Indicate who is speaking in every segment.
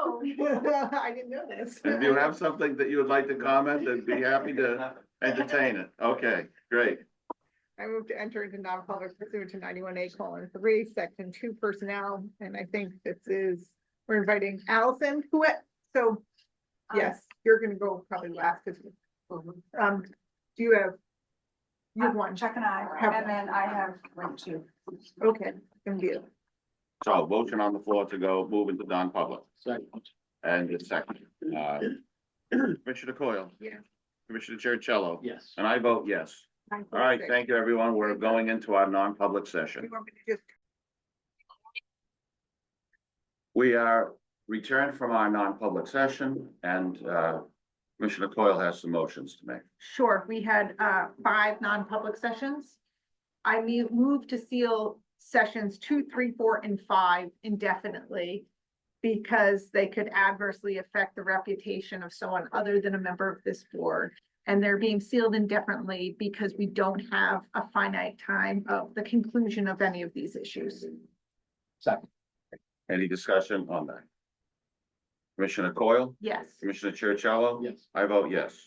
Speaker 1: Oh, I didn't know this.
Speaker 2: If you have something that you would like to comment, I'd be happy to entertain it. Okay, great.
Speaker 1: I move to enter into non-public pursuit to ninety-one A colon three, section two personnel, and I think this is, we're inviting Allison to it, so. Yes, you're gonna go probably last, 'cause, um, do you have? You have one,
Speaker 3: Um, Chuck and I,
Speaker 1: Have-
Speaker 3: and then I have one too.
Speaker 1: okay, and you,
Speaker 2: So motion on the floor to go move into non-public and a second. Uh, Commissioner Coyle.
Speaker 1: Yeah.
Speaker 2: Commissioner Chercello.
Speaker 4: Yes.
Speaker 2: And I vote yes. All right, thank you, everyone. We're going into our non-public
Speaker 1: You
Speaker 2: session.
Speaker 1: want me to just
Speaker 2: We are returned from our non-public session and uh, Commissioner Coyle has some motions to make.
Speaker 1: Sure, we had uh five non-public sessions. I me- move to seal sessions two, three, four, and five indefinitely. Because they could adversely affect the reputation of someone other than a member of this board. And they're being sealed indefinitely because we don't have a finite time of the conclusion of any of these issues.
Speaker 4: Second.
Speaker 2: Any discussion on that? Commissioner Coyle,
Speaker 1: Yes.
Speaker 2: Commissioner Chercello.
Speaker 4: Yes.
Speaker 2: I vote yes.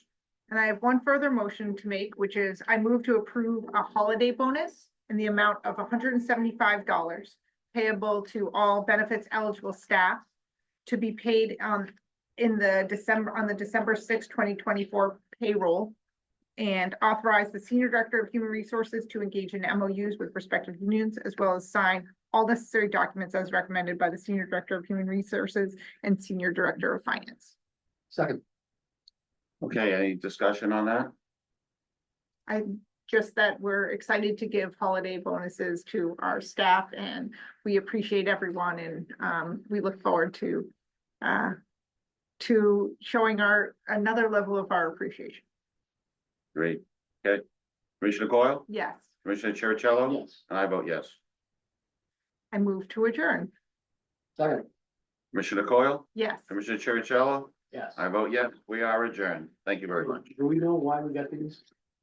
Speaker 1: And I have one further motion to make, which is I move to approve a holiday bonus in the amount of hundred and seventy-five dollars payable to all benefits eligible staff to be paid on, in the December, on the December sixth, twenty twenty-four payroll and authorize the Senior Director of Human Resources to engage in MOUs with respective unions as well as sign all necessary documents as recommended by the Senior Director of Human Resources and Senior Director of Finance.
Speaker 4: Second.
Speaker 2: Okay, any discussion on that?
Speaker 1: just that we're excited to give holiday bonuses to our staff and we appreciate everyone and um, we look forward to uh, to showing our, another level of our appreciation.
Speaker 2: Great. Okay. Commissioner Coyle,
Speaker 1: Yes,
Speaker 2: Commissioner Chercello.
Speaker 4: Yes.
Speaker 2: And I vote yes.
Speaker 1: I move to adjourn.
Speaker 4: Second.
Speaker 2: Commissioner Coyle,
Speaker 1: Yes.
Speaker 2: Commissioner Chercello.
Speaker 4: Yes.
Speaker 2: I vote yes. We are adjourned. Thank you very much.
Speaker 4: Do we know why we got these?